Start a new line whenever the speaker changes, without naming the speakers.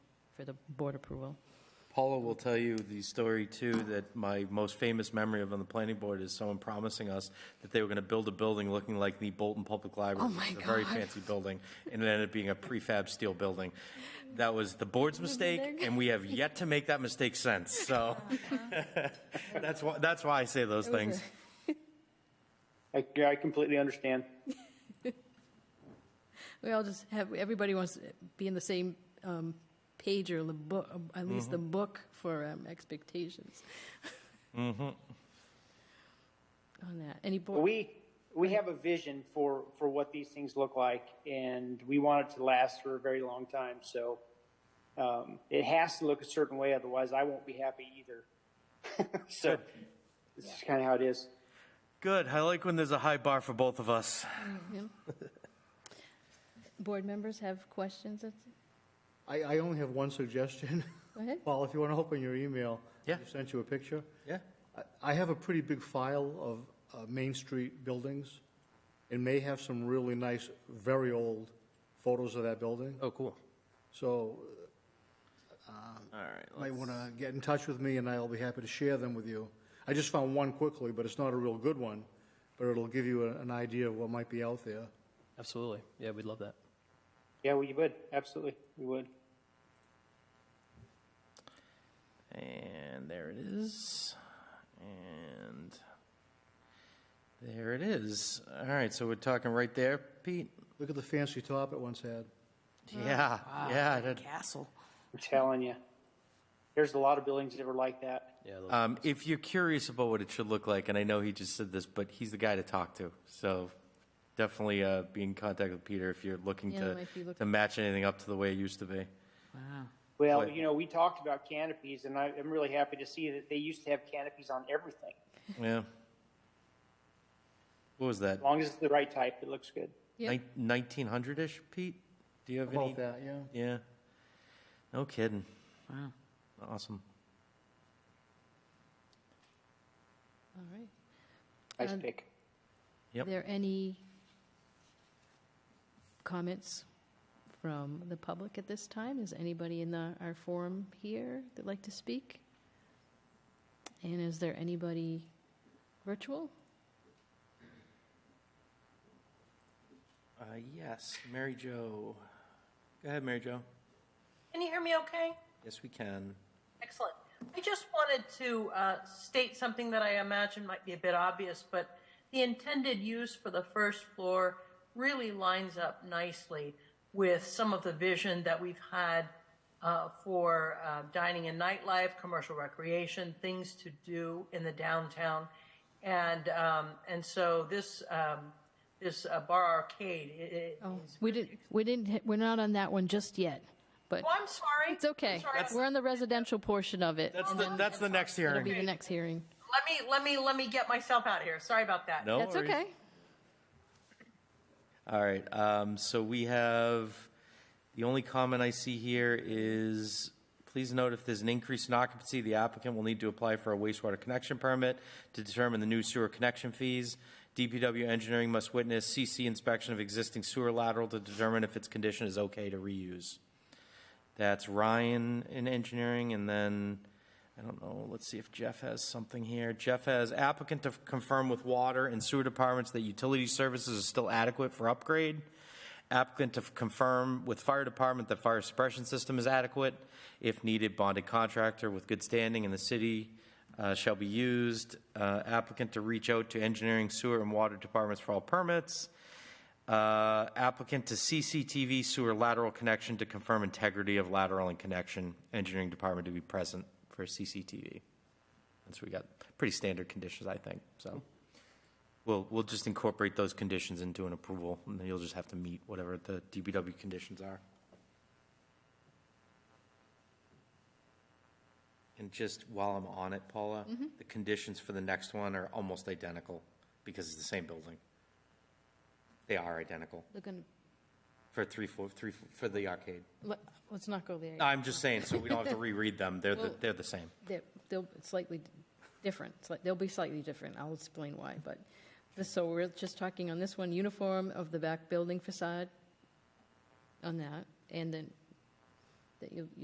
for the board approval.
Paula will tell you the story too, that my most famous memory of on the planning board is someone promising us that they were going to build a building looking like the Bolton Public Library.
Oh, my
which is A very
God.
fancy building, and it ended up being a prefab steel building. That was the board's mistake, and we have yet to make that mistake since, so.
Uh-huh.
That's why, that's why I say those things.
I, yeah, I completely understand.
We all just have, everybody wants to be in the same um, page or the book, at least the book for um, expectations. On that, any board?
We, we have a vision for, for what these things look like, and we want it to last for a very long time, so, um, it has to look a certain way, otherwise I won't be happy either. So, this is kind of how it is.
Good, I like when there's a high bar for both of us.
Yeah. Board members have questions? That's-
I, I only have one suggestion.
Go ahead.
Paul, if you want to open your email.
Yeah.
I sent you a picture.
Yeah.
I- I have a pretty big file of uh, Main Street buildings and may have some really nice, very old photos of that building.
Oh, cool.
So
All right.
you might want to get in touch with me and I'll be happy to share them with you. I just found one quickly, but it's not a real good one, but it'll give you a- an idea of what might be out there.
Absolutely. Yeah, we'd love that.
Yeah, we would, absolutely, we would.
And there it is. And there it is. All right, so we're talking right there, Pete?
Look at the fancy top it once had.
Yeah,
Ah,
yeah. I did.
Castle.
I'm telling you. There's a lot of buildings that were like that.
Yeah, those-
Um, if you're curious about what it should look like, and I know he just said this, but he's the guy to talk to. So definitely uh, be in contact with Peter if you're looking
Yeah,
to,
might be looking-
to match anything up to the way it used to be.
Wow.
Well,
Right.
you know, we talked about canopies, and I, I'm really happy to see that they used to have canopies on everything.
Yeah. What was that?
As long as it's the right type, it looks good.
Yeah.
Nin- 1900 ish, Pete? Do you have any?
About that, yeah.
Yeah. No kidding.
Wow.
Awesome.
All right.
Nice
Uh,
pick.
Yep.
there any comments from the public at this time? Is anybody in the, our forum here that'd like to speak? And is there anybody virtual?
Uh, yes, Mary Jo. Go ahead, Mary Jo.
Can you hear me okay?
Yes, we can.
Excellent. I just wanted to uh, state something that I imagine might be a bit obvious, but the intended use for the first floor really lines up nicely with some of the vision that we've had uh, for uh, dining and nightlife, commercial recreation, things to do in the downtown, and um, and so this um, this uh, bar arcade. i- i-
Oh,
is-
we didn't, we didn't, hit- we're not on that one just yet, but
Oh, I'm sorry.
it's okay.
I'm sorry.
We're on the residential portion of it.
That's the, that's the next
It'll be
hearing.
the next hearing.
Let me let me let me get myself out here. Sorry about that.
No
That's
worries.
okay.
All right. Um, so we have the only comment I see here is please note if there's an increase in occupancy, the applicant will need to apply for a wastewater connection permit to determine the new sewer connection fees. DPW engineering must witness CC inspection of existing sewer lateral to determine if its condition is okay to reuse. That's Ryan in engineering, and then, I don't know, let's see if Jeff has something here. Jeff has applicant to confirm with water and sewer departments that utility services are still adequate for upgrade. Applicant to confirm with fire department that fire suppression system is adequate. If needed, bonded contractor with good standing in the city uh, shall be used. Uh, Applicant to reach out to engineering, sewer, and water departments for all permits. Uh, applicant to CCTV sewer lateral connection to confirm integrity of lateral and connection. Engineering department to be present for CCTV. And so we got pretty standard conditions, I think, so. We'll, we'll just incorporate those conditions into an approval, and then you'll just have to meet whatever the DBW conditions are. And just while I'm on it, Paula, the conditions for the next one are almost identical, because it's the same building. They are identical
They're gonna,
for three, four, three, for the arcade.
let- let's not go there. yet.
I'm just saying, so we don't have to reread them. They're, the
Well-
they're the same.
They're, they'll slightly d- different, It's like- they'll be slightly different, I'll explain why, but, this- so we're just talking on this one, uniform of the back building facade on that, and then, that you,